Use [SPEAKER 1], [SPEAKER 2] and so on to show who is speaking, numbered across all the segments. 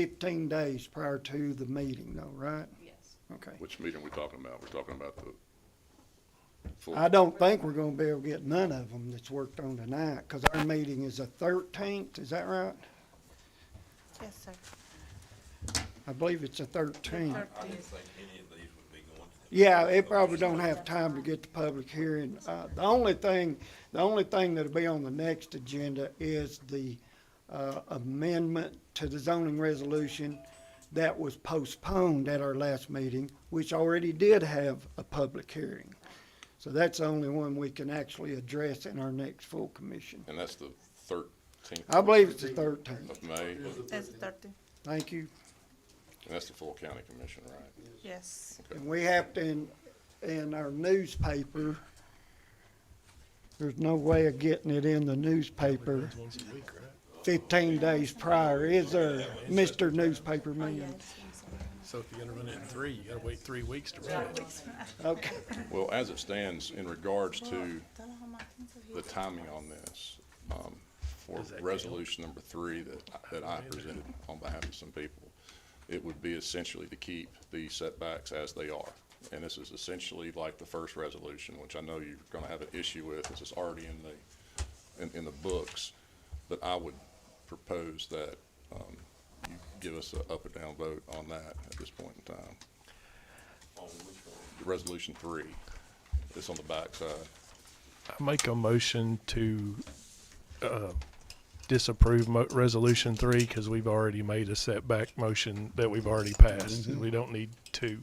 [SPEAKER 1] fifteen days prior to the meeting though, right?
[SPEAKER 2] Yes.
[SPEAKER 1] Okay.
[SPEAKER 3] Which meeting we talking about? We're talking about the. full-
[SPEAKER 1] I don't think we're gonna be able to get none of them that's worked on tonight, cause our meeting is the thirteenth, is that right?
[SPEAKER 2] Yes, sir.
[SPEAKER 1] I believe it's the thirteenth.
[SPEAKER 4] I didn't think any of these would be going to. the-
[SPEAKER 1] Yeah, it probably don't have time to get the public hearing. Uh, the only thing, the only thing that'll be on the next agenda is the, uh, amendment to the zoning resolution that was postponed at our last meeting, which already did have a public hearing. So that's the only one we can actually address in our next full commission.
[SPEAKER 3] And that's the thirteenth.
[SPEAKER 1] I believe it's the thirteenth.
[SPEAKER 3] Of May, and
[SPEAKER 2] That's thirty,
[SPEAKER 1] Thank you.
[SPEAKER 3] that's the full county commission, right?
[SPEAKER 2] yes.
[SPEAKER 1] And we have to, in, in our newspaper, there's no way of getting it in the newspaper fifteen days prior, is there, Mr. Newspaper Man?
[SPEAKER 5] So if you're gonna run it in three, you gotta wait three weeks to run it.
[SPEAKER 1] Okay,
[SPEAKER 3] Well, as it stands, in regards to the timing on this, um, for
[SPEAKER 5] Does that count?
[SPEAKER 3] resolution number three that, that I presented on behalf of some people, it would be essentially to keep the setbacks as they are. And this is essentially like the first resolution, which I know you're gonna have an issue with, this is already in the, in, in the books. But I would propose that, um, you give us a up or down vote on that at this point in time. Resolution three, it's on the backside.
[SPEAKER 5] I make a motion to, uh, disapprove mo- resolution three, cause we've already made a setback motion that we've already passed. We don't need to,
[SPEAKER 4] Your,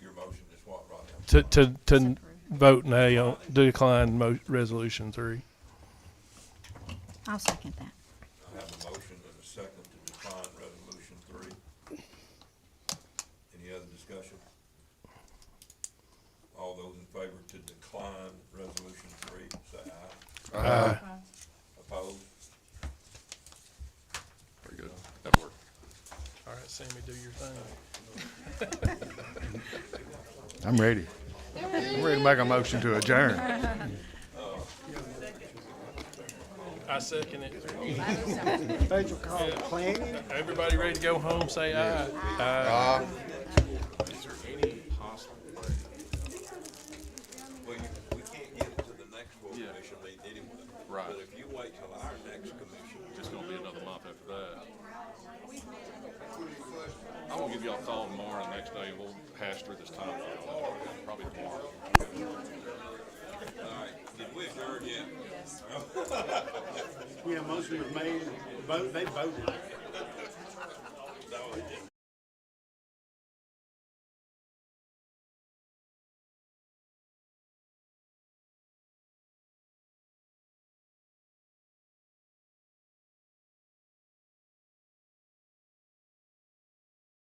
[SPEAKER 4] your motion is what, Rodney? I'm
[SPEAKER 5] to,
[SPEAKER 4] sorry.
[SPEAKER 5] to, to vote nay on, decline mo- resolution three.
[SPEAKER 6] I'll second that.
[SPEAKER 4] I have a motion and a second to define resolution three. Any other discussion? All those in favor to decline resolution three, say aye.
[SPEAKER 5] Aye.
[SPEAKER 4] Opposed?
[SPEAKER 3] Very good. That worked.
[SPEAKER 5] All right, Sammy, do your thing.
[SPEAKER 7] I'm ready. I'm ready to make a motion to adjourn.
[SPEAKER 5] I second it.
[SPEAKER 1] special call planning.
[SPEAKER 5] Everybody ready to go home, say aye.
[SPEAKER 4] Well, you, we can't get it to the next full commission meeting anyway. Right. But if you wait till our next commission.
[SPEAKER 3] It's gonna be another month after that. I will give y'all a call tomorrow, and the next day we'll hash through this time, probably tomorrow.
[SPEAKER 4] All right, did we adjourn yet?
[SPEAKER 8] Yeah, motion was made, vote, they voted.